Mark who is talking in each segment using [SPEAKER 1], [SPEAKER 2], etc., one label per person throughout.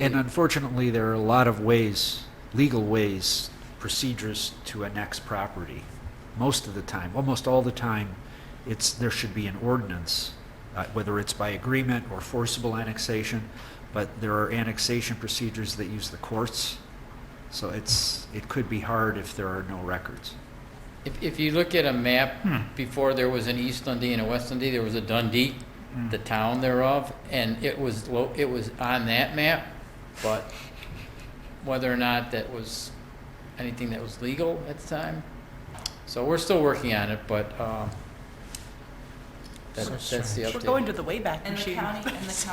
[SPEAKER 1] And unfortunately, there are a lot of ways, legal ways, procedures to annex property. Most of the time, almost all the time, it's, there should be an ordinance, uh, whether it's by agreement or forcible annexation, but there are annexation procedures that use the courts. So it's, it could be hard if there are no records.
[SPEAKER 2] If, if you look at a
[SPEAKER 1] Hmm.
[SPEAKER 2] map, before there was an East Dundee and a West Dundee, there was a Dundee,
[SPEAKER 1] Hmm.
[SPEAKER 2] the town thereof, and it was lo, it was on that map, but whether or not that was anything that was legal at the time. So we're still working on it, but, um, that, that's the
[SPEAKER 3] We're going
[SPEAKER 2] update.
[SPEAKER 3] to the Wayback
[SPEAKER 4] And the
[SPEAKER 3] Machine.
[SPEAKER 4] county, and the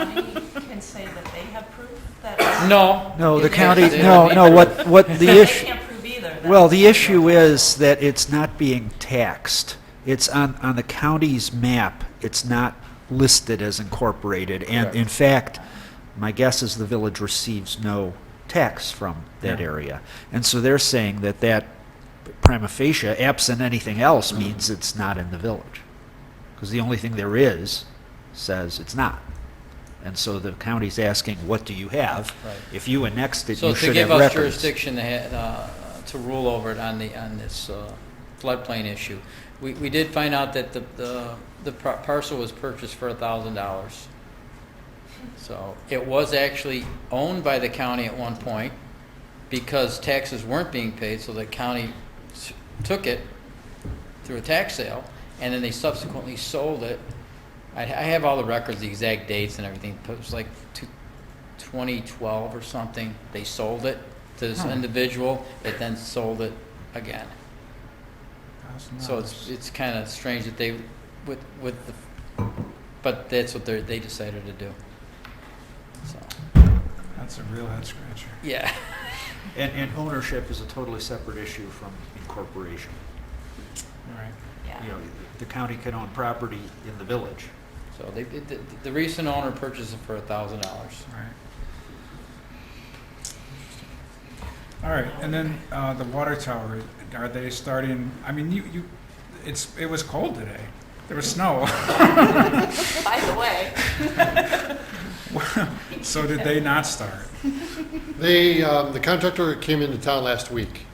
[SPEAKER 4] county can say that they have proof that.
[SPEAKER 2] No.
[SPEAKER 1] No, the
[SPEAKER 2] it-
[SPEAKER 1] county,
[SPEAKER 2] it-
[SPEAKER 1] no, no, what, what the
[SPEAKER 4] They
[SPEAKER 1] issue.
[SPEAKER 4] can't prove either. that's
[SPEAKER 1] Well, the
[SPEAKER 4] what
[SPEAKER 1] issue
[SPEAKER 4] we're-
[SPEAKER 1] is that it's not being taxed. It's on, on the county's map, it's not listed as incorporated. And
[SPEAKER 2] Correct.
[SPEAKER 1] in fact, my guess is the village receives no tax from that
[SPEAKER 2] Yeah.
[SPEAKER 1] area. And so they're saying that that prima facie, absent anything else,
[SPEAKER 2] Mm-hmm.
[SPEAKER 1] means it's not in the village. Because the only thing there is says it's not. And so the county's asking, what do you have?
[SPEAKER 2] Right.
[SPEAKER 1] If you annexed it,
[SPEAKER 2] So
[SPEAKER 1] you
[SPEAKER 2] to
[SPEAKER 1] should
[SPEAKER 2] give
[SPEAKER 1] have
[SPEAKER 2] us
[SPEAKER 1] records.
[SPEAKER 2] jurisdiction to, ha- uh, to rule over it on the, on this uh, floodplain issue, we, we did find out that the, the, the par- parcel was purchased for a thousand dollars. So it was actually owned by the county at one point because taxes weren't being paid, so the county s- took it through a tax sale, and then they subsequently sold it. I, I have all the records, the exact dates and everything, but it was like two, 2012 or something, they sold it to this individual, that then sold it again. So it's, it's kind of strange that they, with, with, the but that's what they, they decided to do. So,
[SPEAKER 5] That's a real head scratcher.
[SPEAKER 2] yeah,
[SPEAKER 1] And, and ownership is a totally separate issue from incorporation.
[SPEAKER 5] All right.
[SPEAKER 4] Yeah.
[SPEAKER 1] You know, the county can own property in the village.
[SPEAKER 2] so they, the, the recent owner purchased it for a thousand dollars.
[SPEAKER 5] All right. All right, and then uh, the water tower, are they starting, I mean, you, you, it's, it was cold today. There was snow.
[SPEAKER 4] By the way,
[SPEAKER 5] So did they not start?
[SPEAKER 6] They, um, the contractor came into town last week,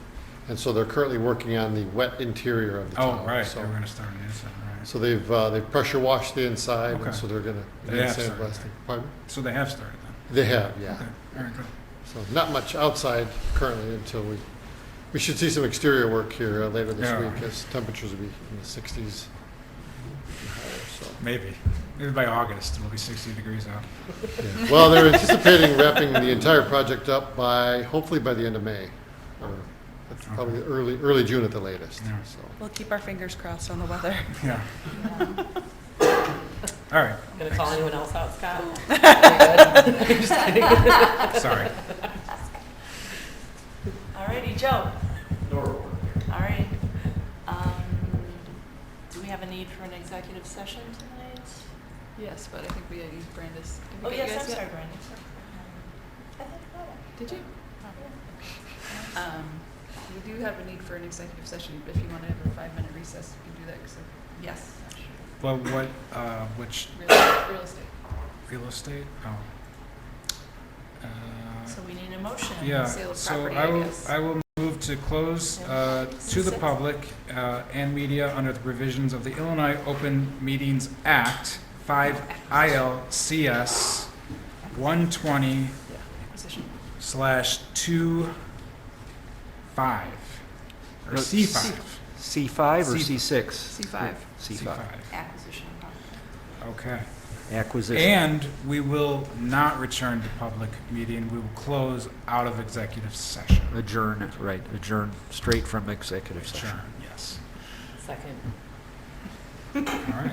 [SPEAKER 6] and so they're currently working on the wet interior of the tower.
[SPEAKER 5] Oh, right, they
[SPEAKER 6] so-
[SPEAKER 5] were gonna start it inside, right.
[SPEAKER 6] So they've, uh, they've pressure washed the inside,
[SPEAKER 5] Okay.
[SPEAKER 6] and so they're gonna.
[SPEAKER 5] They have
[SPEAKER 6] sandblasting.
[SPEAKER 5] started.
[SPEAKER 6] Pardon?
[SPEAKER 5] So they have started then?
[SPEAKER 6] They have, yeah.
[SPEAKER 5] Okay, all right, good.
[SPEAKER 6] So not much outside currently until we, we should see some exterior work here uh, later this
[SPEAKER 5] Yeah.
[SPEAKER 6] week as temperatures will be in the sixties.
[SPEAKER 5] Maybe, maybe by August, it'll be sixty degrees out.
[SPEAKER 6] Well, they're anticipating wrapping the entire project up by, hopefully by the end of May, or that's probably early, early June at the latest,
[SPEAKER 5] Yeah.
[SPEAKER 6] so.
[SPEAKER 3] We'll keep our fingers crossed on the weather.
[SPEAKER 5] Yeah. All right,
[SPEAKER 7] Gonna call anyone else out, Scott?
[SPEAKER 5] sorry.
[SPEAKER 4] alrighty, Joe. All right. Um, Do we have a need for an executive session tonight?
[SPEAKER 7] Yes, but I think we had used Brandis. Did we
[SPEAKER 4] Oh,
[SPEAKER 7] get you
[SPEAKER 4] yes, I'm
[SPEAKER 7] guys
[SPEAKER 4] sorry,
[SPEAKER 7] yet?
[SPEAKER 4] Brandon. sorry. Um, I thought about it.
[SPEAKER 7] Did you? Um, We do have a need for an executive session, but if you want to have a five-minute recess, you can do that,
[SPEAKER 4] Yes.
[SPEAKER 5] Well, what, uh, which,
[SPEAKER 7] because real estate.
[SPEAKER 5] real estate? Oh. Uh,
[SPEAKER 4] So we need a motion.
[SPEAKER 5] Yeah,
[SPEAKER 7] sale of
[SPEAKER 5] so
[SPEAKER 7] property,
[SPEAKER 5] I
[SPEAKER 7] I
[SPEAKER 5] will,
[SPEAKER 7] guess.
[SPEAKER 5] I will move to close
[SPEAKER 4] Yeah.
[SPEAKER 5] uh, to the
[SPEAKER 4] Six.
[SPEAKER 5] public uh, and media under the provisions of the Illinois Open Meetings Act, 5 ILCS 120
[SPEAKER 7] Acquisition.
[SPEAKER 5] slash 2, 5, or
[SPEAKER 1] No,
[SPEAKER 5] C5.
[SPEAKER 1] C5 or
[SPEAKER 5] C-
[SPEAKER 1] C6?
[SPEAKER 7] C5.
[SPEAKER 1] C5.
[SPEAKER 4] Acquisition of property.
[SPEAKER 5] Okay.
[SPEAKER 1] Acquisition.
[SPEAKER 5] And we will not return to public meeting, we will close out of executive session.
[SPEAKER 1] Adjourn, right, adjourn straight from executive session.
[SPEAKER 5] Sure, yes.
[SPEAKER 7] Second.
[SPEAKER 5] All right,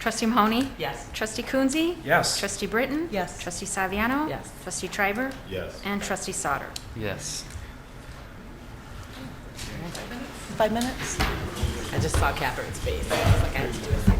[SPEAKER 8] Trustee Mahoney?
[SPEAKER 4] Yes.
[SPEAKER 8] Trustee Coonsey?
[SPEAKER 5] yes.
[SPEAKER 8] Trustee Britton?
[SPEAKER 3] Yes.
[SPEAKER 8] Trustee Saviano?
[SPEAKER 7] Yes.
[SPEAKER 8] Trustee Triber?
[SPEAKER 6] Yes.
[SPEAKER 8] And Trustee Sauter?
[SPEAKER 2] Yes.
[SPEAKER 3] Five minutes?
[SPEAKER 7] I just saw Catherine's face. I was like, I have to do a second.